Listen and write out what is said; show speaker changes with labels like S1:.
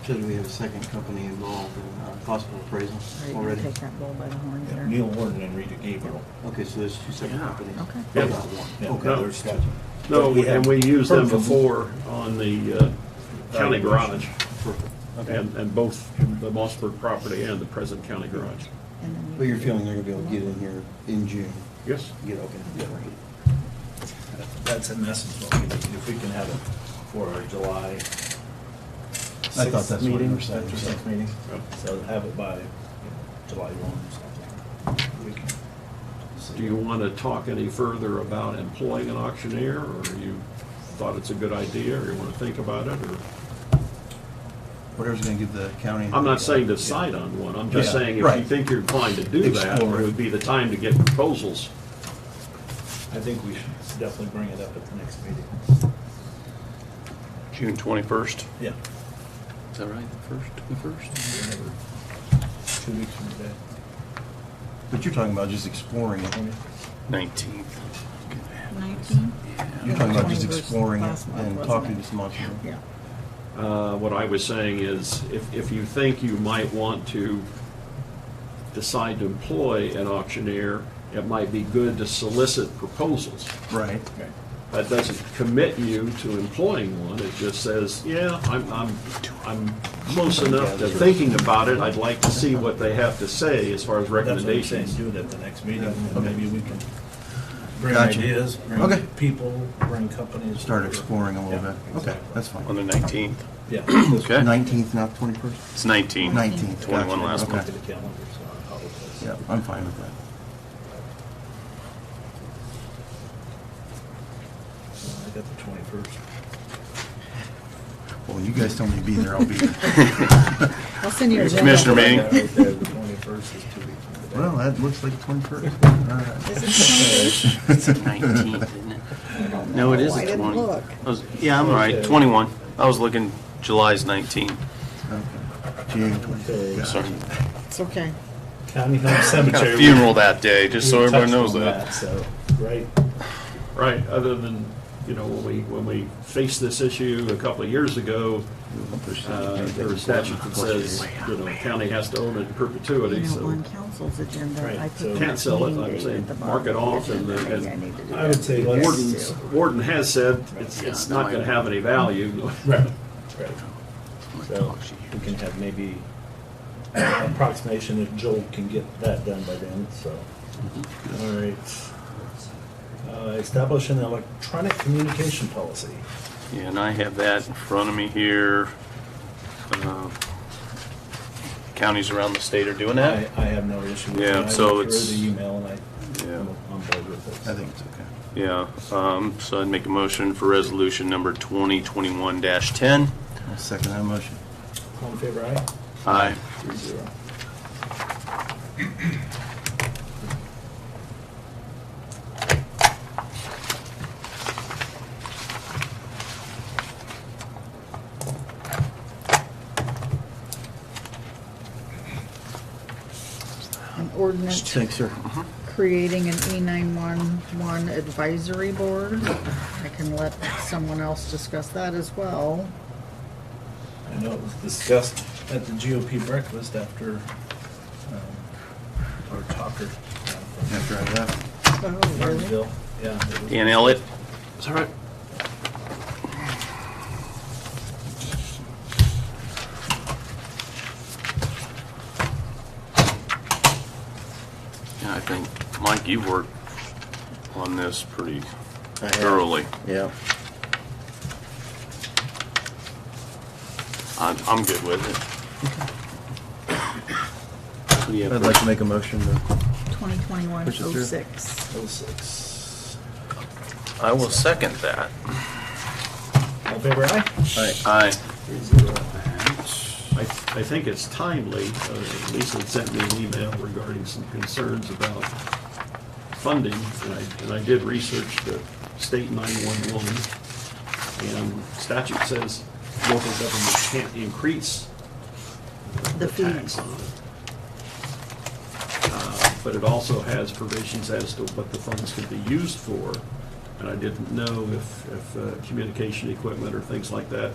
S1: Because we have a second company involved in uh, possible appraisal
S2: Are you gonna
S1: already.
S2: take that bull by the horns
S3: Yeah,
S2: there?
S3: Neil Warden and Rita Gabriel.
S1: Okay, so there's two separate companies.
S2: okay.
S1: Not
S4: Yeah.
S3: Yeah,
S1: one. Okay,
S4: No.
S3: there's two.
S4: No,
S3: But we have
S4: and we used them
S3: heard from-
S4: before on the uh, county garage,
S1: perfect.
S3: Okay.
S4: and, and both the Mossburg property and the present county garage.
S2: And then we-
S1: But you're feeling they're gonna be able to get in here in June?
S4: Yes?
S1: Get, okay.
S3: That's in essence what we need, if we can have it for our July
S1: I thought that's
S3: sixth
S1: what you
S3: meeting,
S1: were saying.
S3: after sixth meeting.
S4: Yep.
S3: So have it by you know, July one or something. We can see.
S4: Do you want to talk any further about employing an auctioneer, or you thought it's a good idea, or you want to think about it, or?
S1: Whatever's gonna give the county.
S4: I'm not saying decide on one, I'm just
S3: Yeah,
S4: saying if you
S3: right.
S4: think you're inclined to do that,
S3: Explore
S4: it
S3: it.
S4: would be the time to get proposals.
S3: I think we should definitely bring it up at the next meeting.
S5: June 21st,
S3: Yeah.
S5: is that right, the first, the first?
S3: whenever. Two weeks from today.
S1: But you're talking about just exploring it.
S5: 19th.
S2: 19?
S1: You're talking about
S2: Twenty
S1: just
S2: versus
S1: exploring it
S2: last month,
S1: and
S2: wasn't
S1: talking
S2: it?
S1: to some entrepreneurs.
S2: Yeah.
S4: Uh, What I was saying is, if, if you think you might want to decide to employ an auctioneer, it might be good to solicit proposals.
S1: Right.
S3: Okay.
S4: That doesn't commit you to employing one, it just says, yeah, I'm, I'm, I'm close enough to thinking about it, I'd like to see what they have to say as far
S3: That's
S4: as
S3: what I'm saying,
S4: recommendations.
S3: do it at the next meeting, and
S1: Okay.
S3: maybe we can bring
S1: Gotcha.
S3: ideas,
S1: Okay.
S3: bring people, bring companies.
S1: Start exploring a little
S3: Yeah,
S1: bit. Okay,
S3: exactly.
S1: that's
S5: On
S1: fine.
S5: the 19th.
S3: Yeah.
S5: Okay.
S1: Nineteenth, not twenty-first?
S5: It's 19.
S1: 19th.
S5: 21
S1: Gotcha.
S5: last
S1: Okay.
S5: month.
S3: To the calendar, so I apologize.
S1: Yeah, I'm fine with that.
S3: So I got the twenty-first.
S1: Well, when you guys tell me to be there, I'll be there.
S2: I'll send you a.
S5: Your
S2: agenda.
S5: commissioner meeting.
S3: The twenty-first is two weeks from today.
S1: Well, that looks like twenty-first. All right.
S2: Is it 20?
S5: It's the 19th, isn't it?
S2: I don't
S5: No, it
S2: know.
S5: is
S2: I
S5: the
S2: didn't
S5: 20.
S2: look.
S5: I was- Yeah, I'm right, 21. I was looking, July's 19.
S1: Okay. June 21st. Got it.
S5: Sorry.
S2: It's okay.
S3: County Home
S5: Got a
S3: Cemetery.
S5: funeral that day, just so
S3: We
S5: everyone
S3: touched
S5: knows
S3: on
S5: that.
S3: So, right,
S4: Right, other than, you know, when we, when we faced this issue a couple of years ago, uh, there was a statute that says, you know, county has to own it in
S2: You
S4: perpetuity,
S2: know,
S4: so
S2: on council's agenda,
S3: Right,
S2: I
S3: so-
S2: put.
S4: uh, Can't sell it, I'm
S2: 19 date
S4: saying
S2: at the
S4: mark it
S2: bottom of
S4: off
S2: the
S4: and
S2: agenda.
S4: then-
S2: Maybe I need to do
S3: I would
S2: that
S3: say
S2: too.
S3: let's-
S4: Warden's, Warden has said it's, it's not gonna have any value.
S3: right, right.
S5: Oh
S3: So we can have maybe an approximation if Joel can get that done by then, so.
S5: Mm-hmm.
S3: All right. Uh, Establish an electronic communication policy.
S5: Yeah, and I have that in front of me here. Uh, Counties around the state are doing
S3: I,
S5: that.
S3: I have no issue with it.
S5: Yeah, so
S3: I went
S5: it's-
S3: through the email and I,
S5: Yeah.
S3: I'm on board with it.
S1: I think it's okay.
S5: Yeah, um, so I'd make a motion for resolution number 2021-10.
S1: I'll second that motion.
S3: All in favor, aye?
S5: Aye.
S3: Three zero.
S2: An ordinance
S1: Thanks, sir.
S2: creating an E nine-one-one advisory board. I can let someone else discuss that as well.
S3: I know it was discussed at the GOP breakfast after um, our talker uh, from
S1: After I left,
S2: Oh, really?
S3: Martinsville. Yeah, it was-
S5: Dan Ellett. Is that right? Yeah, I think, Mike, you've worked on this pretty
S1: I have.
S5: thoroughly.
S1: yeah.
S5: I'm, I'm good with it. What do you have
S1: I'd
S5: for-
S1: like to make a motion to,
S2: Twenty twenty-one
S1: Push it
S2: oh
S1: through.
S2: six.
S3: it was six.
S5: I will second that.
S3: All in favor aye?
S1: all right,
S5: Aye.
S3: Three zero.
S4: I, I think it's timely, uh, Lisa had sent me an email regarding some concerns about funding, and I, and I did research the state 911, and statute says local government can't increase
S2: The
S4: the
S2: fees.
S4: tax on it. Uh, But it also has provisions as to what the funds could be used for, and I didn't know if, if uh, communication equipment or things like that